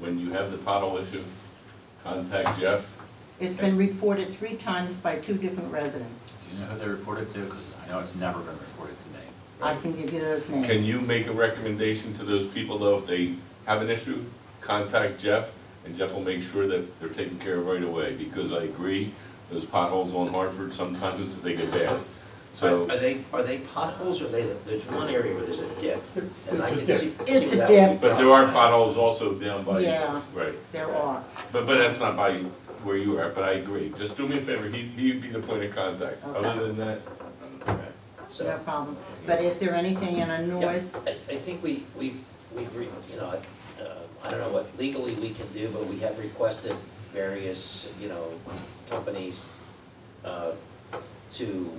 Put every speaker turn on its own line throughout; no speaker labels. when you have the pothole issue, contact Jeff.
It's been reported three times by two different residents.
Do you know who they reported to? Because I know it's never been reported to me.
I can give you those names.
Can you make a recommendation to those people though, if they have an issue, contact Jeff, and Jeff will make sure that they're taken care of right away, because I agree, those potholes on Hartford, sometimes they get bad. So,
Are are they, are they potholes, or they, there's one area where there's a dip? and I can
It's a
see-
dip. It's
see
a
that would be
dip.
but there are potholes also down by,
Yeah.
right,
There are.
but, but that's not by where you are, but I agree, just do me a favor, he, he'd be the point of contact, other
Okay.
than that, I'm-
So-
No problem. But is there anything in a
Yeah,
noise?
I, I think we, we've, we've, re- you know, I- uh, I don't know what legally we can do, but we have requested various, you know, companies uh, to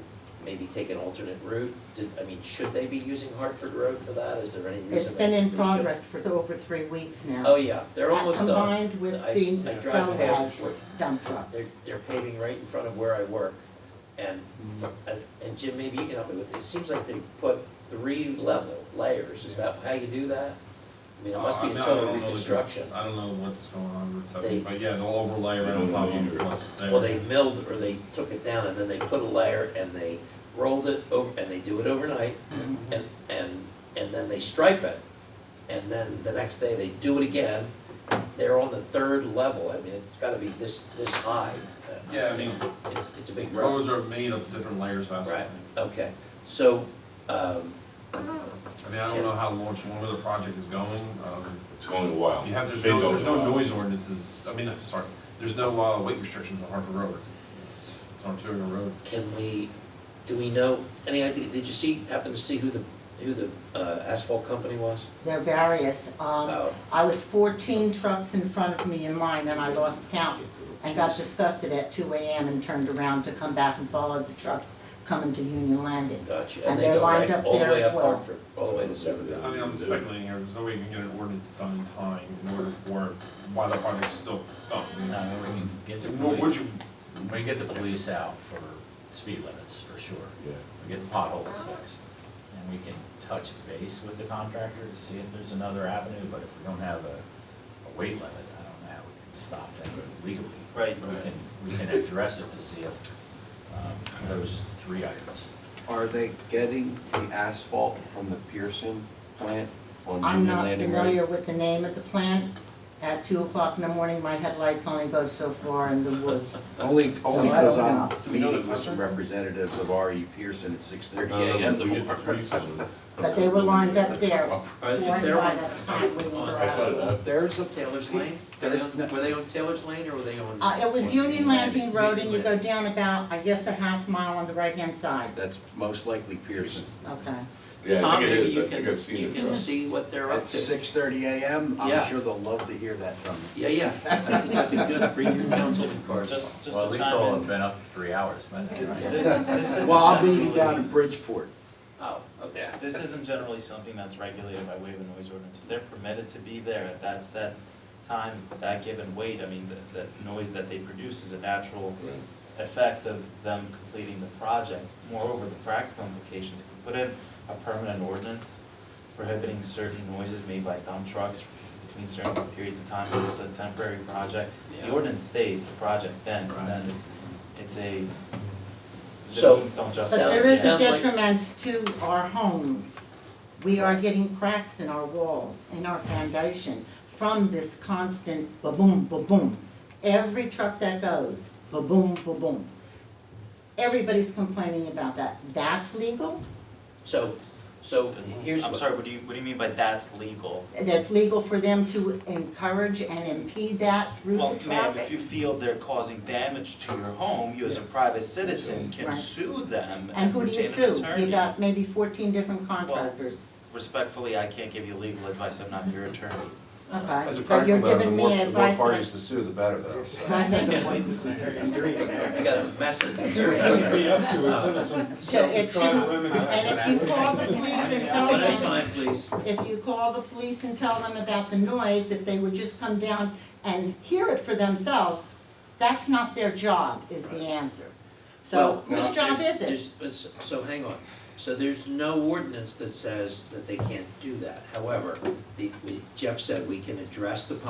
maybe take an alternate route. Did, I mean, should they be using Hartford Road for that? Is there any reason?
It's been
they-
in
they
progress for over three weeks now.
shouldn't? Oh, yeah, they're
Uh,
almost done.
Combined with
I- I
the
drive
Stonewall
past where-
dump trucks.
they're, they're paving right in front of where I work. And,
Mm-hmm.
uh, and Jim, maybe you can help me with, this. it seems like they've put three level layers, is that how you do that? I mean, it must be
Uh,
a
I mean, I
total
don't know the-
reconstruction.
I don't know what's going on with
They-
something, but yeah, they'll overlay right on top of it once they.
Well, they milled or they took it down and then they put a layer and they rolled it over, and they do it overnight.
Mm-hmm.
And, and, and then they stripe it. And then the next day they do it again. They're on the third level. I mean, it's gotta be this, this high.
Yeah, I mean,
It's, it's a big road.
roads are made of different layers of asphalt.
Right, okay. So, um,
I mean, I don't know how much longer the project is going. um,
it's going a while.
You have, there's
Big
no,
goes
there's
a
no
while.
noise ordinances, I mean, sorry, there's no uh, weight restrictions on Hartford Road. It's on Tuger Road.
can we, do we know, any idea, did you see, happen to see who the, who the uh, asphalt company was?
They're various. Um,
Oh.
I was 14 trucks in front of me in line, and I lost count, and got disgusted at 2 AM and turned around to come back and follow the trucks coming to Union Landing.
Gotcha.
And
they
they're
go
lined
right
up
all the
there
way
as
up
well.
Hartford, All the way to Severn.
I mean, I'm speculating here, there's no way you can get an ordinance done in time in order for, why the project's still going.
No, I mean, we can get the
What would
police,
you,
we can get the police out for speed limits, for sure.
Yeah.
We get the potholes fixed, and we can touch base with the contractor to see if there's another avenue, but if we don't have a, a weight limit, I don't know how we can stop that legally.
Right.
But We can, we can address it to see if, um, those three items.
Are they getting the asphalt from the Pearson plant on
I'm
Union
not
Landing
familiar
Road?
with the name of the plant. At 2 o'clock in the morning, my headlights only go so far in the woods.
Only, only
So I don't
because I'm
know.
Do we know the
meeting with some
customer?
representatives of RE Pearson at six thirty
No, no, no, Uh,
AM
Um, we get the
tomorrow.
police on it.
But they were lined up there, four
I
and
think
five
they're on-
at a time, waiting
on-
for
I
us.
thought it
up.
There's a.
Taylor's Lane? Were they, on- were they on Taylor's Lane or were they on?
Uh, it was Union Landing Road, and you go down about, I guess, a half mile on the right-hand side.
That's most likely Pearson.
Okay.
Yeah, I
Tom,
think it
maybe
is,
you
I think I've
can,
seen
you
it.
can
Tom.
see what they're up
At
to.
six thirty AM,
Yeah.
I'm sure they'll love to hear that from you.
Yeah, yeah. I think that'd be good for your councilman cars.
Just, just Well, at least all have been up three hours, but.
Well, I'll be down in Bridgeport.
Oh, okay.
This isn't generally something that's regulated by way of a noise ordinance. If they're permitted to be there at that set time, that given weight, I mean, the, the noise that they produce is a natural effect of them completing the project. Moreover, the practical implications, if we put in a permanent ordinance prohibiting certain noises made by dump trucks between certain periods of time, this is a temporary project. The
Yeah.
ordinance stays, the project ends, and then it's, it's a, the
So-
means don't
But
justify.
there is a
Sounds like-
detriment to our homes. We are getting cracks in our walls, in our foundation, from this constant ba-boom, ba-boom. Every truck that goes, ba-boom, ba-boom. Everybody's complaining about that. That's legal?
So, so here's what.
I'm sorry, what do you, what do you mean by that's legal?
That's legal for them to encourage and impede that through
Well,
the
ma'am, if you
traffic?
feel they're causing damage to your home, you as a private citizen can
Right.
sue them
And
and
who do you
retain an
sue?
attorney.
You got maybe fourteen different contractors.
Respectfully, I can't give you legal advice, I'm not your attorney.
Okay, but you're
the
giving
more-
me
the
advice
more parties
that.
to sue, the better though.
I think-
I got a message.
Be up to it, then it's
Uh,
on-
So it
try to
shouldn't-
remedy that.
And if you call the police and tell
One at a
them,
time, please.
if you call the police and tell them about the noise, if they would just come down and hear it for themselves, that's not their job, is the answer. So
Well,
whose job
there's-
is it?
there's- but s- So hang on. So there's no ordinance that says that they can't do that. However, the, we- Jeff said we can address the